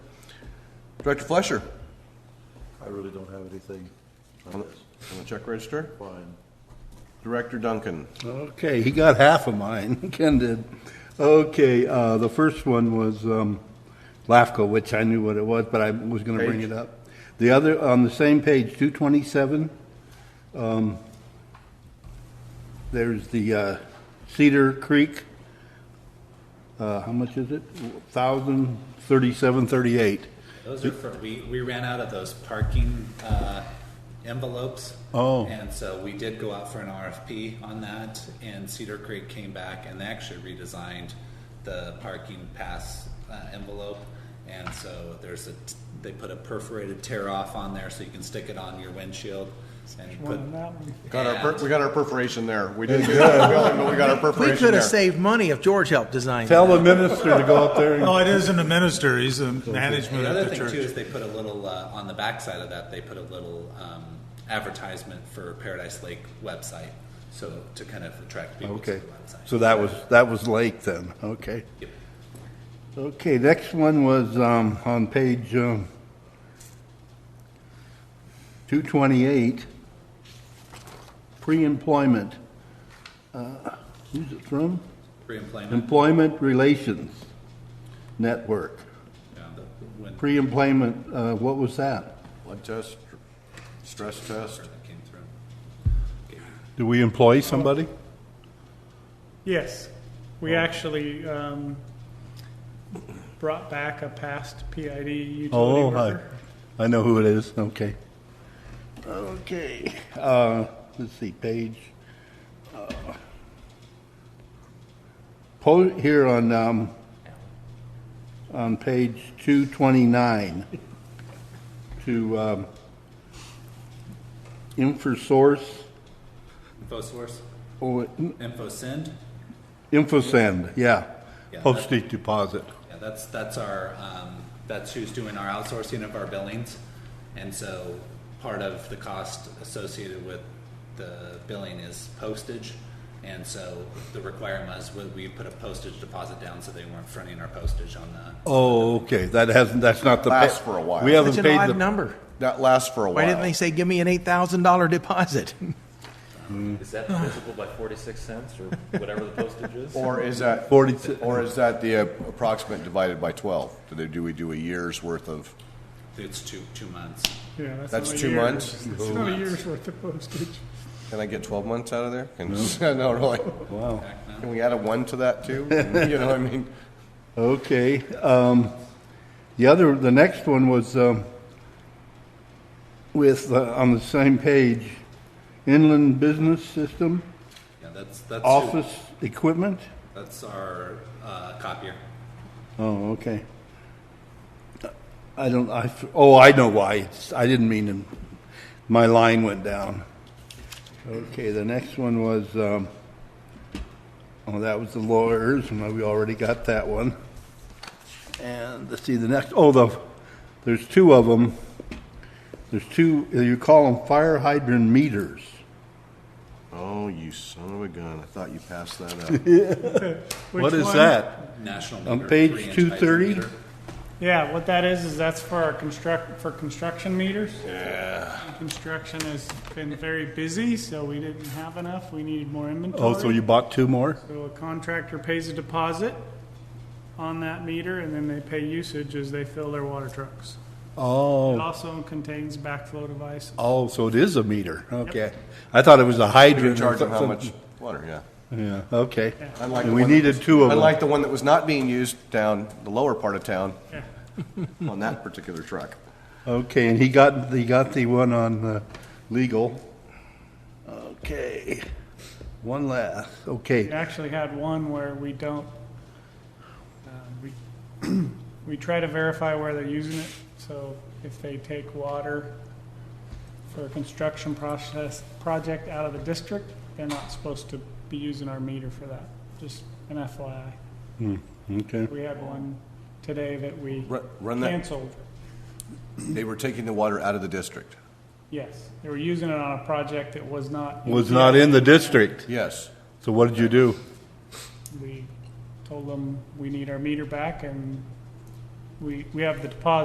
Director Flesher, I really don't have anything on on the- this. on the check register. Fine. Director Duncan, Okay, he got half of mine, Ken did. Okay, uh, the first one was um, LAFCO, which I knew what it was, but I was going to bring Page. it up. The other, on the same page, 227, um, there's the uh, Cedar Creek, uh, how much is it? 1,037.38. Those are for, we, we ran out of those parking uh, envelopes. Oh. And so we did go out for an RFP on that, and Cedar Creek came back and they actually redesigned the parking pass uh, envelope. And so there's a, they put a perforated tear off on there so you can stick it on your windshield and put. got our, per- and- we got our perforation there. We didn't do that, really, but we got our We perforation could have there. saved money if George helped design Tell that. the minister to go up there and No, Oh, it isn't the minister, he's the management The of other the thing too church. is they put a little, uh, on the backside of that, they put a little um, advertisement for Paradise Lake website. So to kind of attract people to the Okay, website. so that was, that was Lake then, okay. Yep. Okay, next one was um, on page um, 228, pre-employment. Uh, Who's it from? Pre-employment. Employment Relations Network. Yeah, the- when Pre-employment, uh, what was that? Blood test, stress test. that came through. Do we employ somebody? Yes, Oh. we actually um, brought back a past PID utility Oh, hi. worker. I know who it is. Okay. Okay. Uh, let's see, page. uh, Po, here on, um, on page two twenty-nine to, um, Infosource, InfoSource, or InfoSend, InfoSend, yeah. Yeah, that- Postage deposit. yeah, that's, that's our, um, that's who's doing our outsourcing of our billings. And so part of the cost associated with the billing is postage. And so the requirement was we- we put a postage deposit down so they weren't fronting our postage on the, Oh, okay, that hasn't, that's not the. pa- Lasts for a while. We Such haven't an paid the. odd number. That lasts for a Why while. didn't they say, give me an $8,000 deposit? Is that divisible by 46 cents or whatever the postage is? Or is that, 40 or is that the uh, approximate divided by 12? Do they, do we do a year's worth of, Oh. it's two, two months. Yeah, that's That's not a two year. months? It's not a year's worth of postage. can I get 12 months out of there? Can- No, really? Wow. Can we add a one to that too? You know, what I mean, Okay, um, the other, the next one was, um, with, uh, on the same page, inland business system, Yeah, that's, that's, who- office equipment? that's our, uh, copier. Oh, okay. I don't, I, f- oh, I know why, it's, I didn't mean to, my line went down. Okay, the next one was, um, oh, that was the lawyers, and we already got that one. And, let's see, the next, oh, the, there's two of them. There's two, you call them fire hydrant meters. oh, you son of a gun, I thought you passed that up. Which What is one? that? National. On meter, page three-inch 230? meter. Yeah, what that is, is that's for our construct, for construction meters. Yeah. Construction has been very busy, so we didn't have enough. We needed more inventory. Oh, so you bought two more? So a contractor pays a deposit on that meter, and then they pay usage as they fill their water trucks. It Oh, also contains backflow device. oh, so it is a meter, okay. I thought it was a hydrant. You or charge them how something. much water, yeah. Yeah, okay. Unlike And the we one that needed was- two of them. Unlike the one that was not being used down the lower part of town Yeah. on that particular truck. Okay, and he got, he got the one on uh, legal. Okay, one last, We okay. actually had one where we don't, uh, we, we try to verify where they're using it. So if they take water for a construction process, project out of the district, they're not supposed to be using our meter for that. Just an FYI. Okay, We had one today that we Run- run that- canceled. They were taking the water out of the district. Yes, they were using it on a project that was not. was not in the district, Yes. so what did you do? We told them we need our meter back and we, we have the deposit